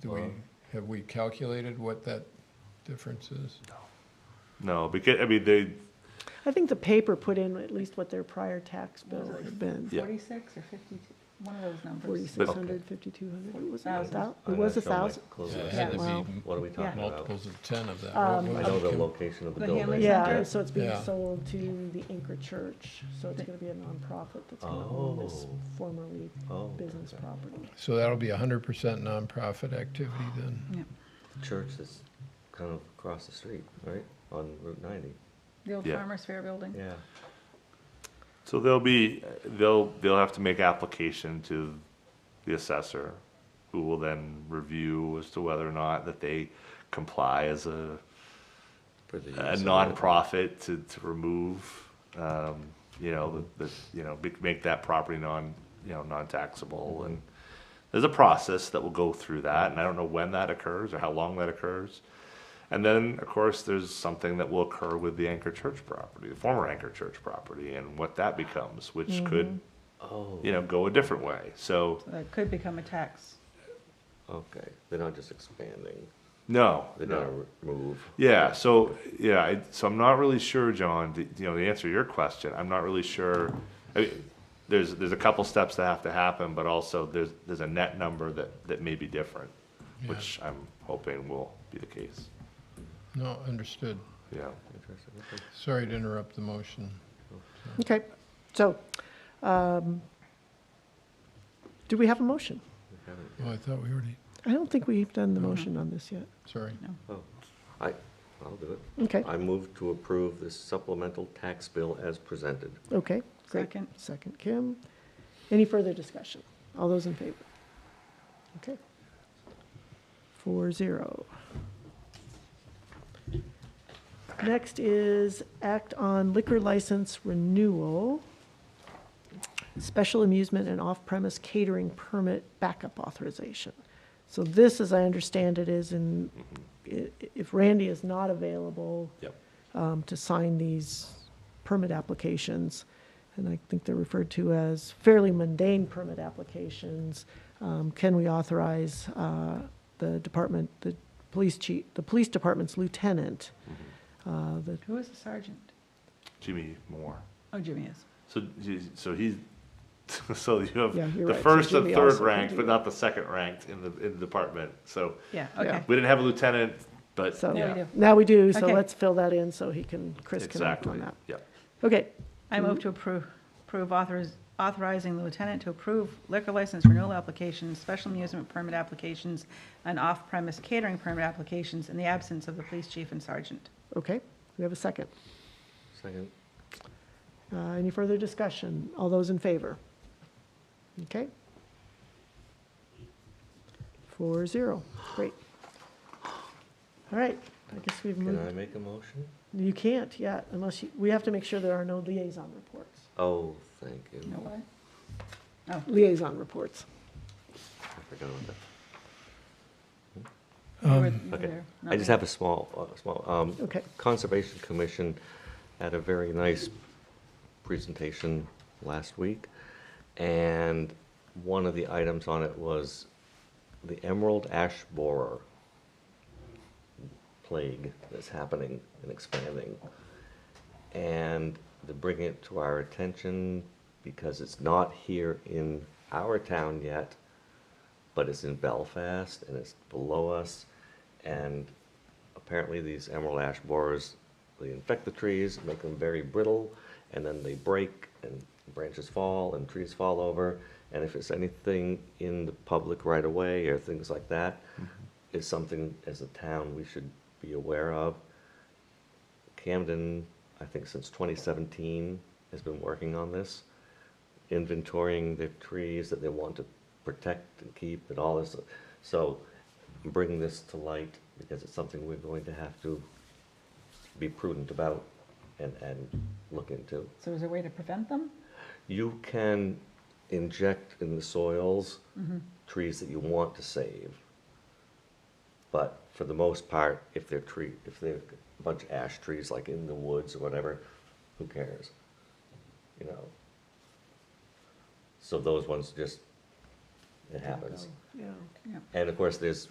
Do we, have we calculated what that difference is? No, because, I mean, they, I think the paper put in at least what their prior tax bill would have been. Yeah. Forty-six or fifty-two, one of those numbers. Forty-six hundred, fifty-two hundred, was it a Thousand. thou, it was a thousand? It Yeah. had to Yeah. be Wow. m- What are we talking about? Multiples of ten of that. Um, I What know was the it? location of the The Hanley building. Yeah, Center. so it's being Yeah. sold to the Anchor Church, so it's gonna be a nonprofit that's gonna own this Oh. formerly Oh, business property. So that'll be hundred percent nonprofit activity then? Yeah. Church that's kind of across the street, right, on Route ninety, The old Yeah. Farmers Fair building. yeah. so they'll be, they'll, they'll have to make application to the assessor, who will then review as to whether or not that they comply as a, for the a use of it. nonprofit to, to remove, um, you know, the, the, you know, make- make that property non, you know, non-taxable and there's a process that will go through that and I don't know when that occurs or how long that occurs. And then, of course, there's something that will occur with the Anchor Church property, the former Anchor Church property and what that becomes, which could, Oh, you know, go a different way. So, So That could become a tax. okay, they're not just expanding, no. they're no. gonna re- move. Yeah, so, yeah, I, so I'm not really sure, John, the, you know, the answer to your question, I'm not really sure. I mean, there's, there's a couple steps that have to happen, but also there's, there's a net number that, that may be different, which I'm hoping will be the case, No, understood. yeah. Interesting, okay. Sorry to interrupt the motion. Okay, so, um, do we have a motion? Mm-hmm. We haven't- Oh, I thought we already, I don't think we've done the motion on this yet. sorry. Oh, I, I'll do it. Okay, I move to approve the supplemental tax bill as presented. okay, great. Second. Second, Kim. Any further discussion? All those in favor? Okay. Four zero. Next is act on liquor license renewal, special amusement and off-premise catering permit backup authorization. So this, as I understand it, is in, i- if Randy is not available, Yep. um, to sign these permit applications. And I think they're referred to as fairly mundane permit applications. Um, Can we authorize uh, the department, the police chief, the police department's lieutenant? uh, the- Who is the sergeant? Jimmy Moore. Oh, Jimmy is. So, you- so he's, so you have Yeah, you're the right. So first and Jimmy third also can ranked, do but that. not the second ranked in the, in the department. So Yeah, Yeah. okay. we didn't have a lieutenant, but So- There we yeah. do. Now we do, so Okay. let's fill that in so he can, Chris can act Exactly, on that. yeah. Okay, I move to approve, approve authoriz, authorizing the lieutenant to approve liquor license renewal applications, special amusement permit applications, and off-premise catering permit applications in the absence of the police chief and sergeant. okay, we have a second. Second, Uh, Any further discussion? All those in favor? Okay. Four zero, great. All right, I guess we've can I moved, make a motion? you can't yet, unless you, we have to make sure there are no liaison reports. Oh, thank you. No way? Liaison reports. I forgot about that. You were- you were Okay. there. I just have a small, uh, small, um, Okay. Conservation Commission had a very nice presentation last week, and one of the items on it was the emerald ash borer plague that's happening and expanding. And to bring it to our attention, because it's not here in our town yet, but it's in Belfast and it's below us. And apparently these emerald ash borers, they infect the trees, make them very brittle, and then they break and branches fall and trees fall over. And if it's anything in the public right of way or things like that, it's something as a town we should be aware of. Camden, I think since twenty seventeen, has been working on this inventorying the trees that they want to protect and keep and all this. So bring this to light because it's something we're going to have to be prudent about and, and look into. So is there a way to prevent them? You can inject in the soils trees that you want to save. But for the most part, if they're tree, if they're a bunch of ash trees like in the woods or whatever, who cares? You know? So those ones just, it happens. Yeah. Yeah. And of course, there's